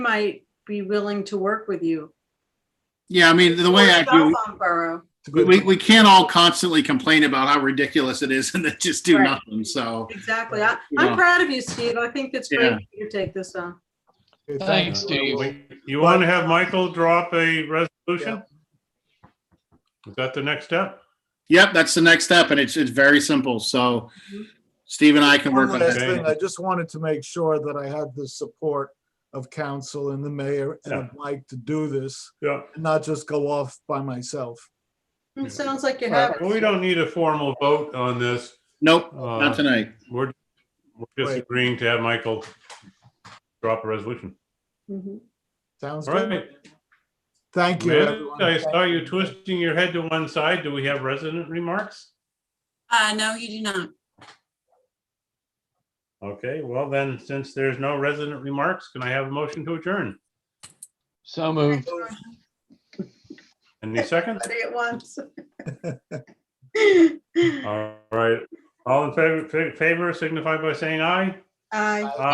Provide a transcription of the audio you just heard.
might be willing to work with you. Yeah, I mean, the way I do, Southbound Borough. we- we, we can't all constantly complain about how ridiculous it is and then just do Right. nothing. So, Exactly. I, Yeah. I'm proud of you, Steve. I think it's great Uh, Yeah. that you take this on. Thanks, Steve. You want to have Michael drop a resolution? Is that the next step? yep, that's the next step and it's, it's very simple. So Steve and I can work One on last that. it. thing, I just wanted to make sure that I had the support of council and the mayor and of Mike to do this, Yeah. and not just go off by myself. Yeah. It sounds like you have. Well, it. we don't need a formal vote on this. Nope, Uh, not tonight. We're we're just Wait. agreeing to have Michael drop a resolution. Mhm. Sounds All good. right. Thank you, Amanda, everyone. I saw you twisting your head to one side. Do we have resident remarks? Uh, no, you do not. Okay, well then, since there's no resident remarks, can I have a motion to adjourn? So moved. Any second? Everybody At once. All right. All in favor, favor signify by saying aye. Aye.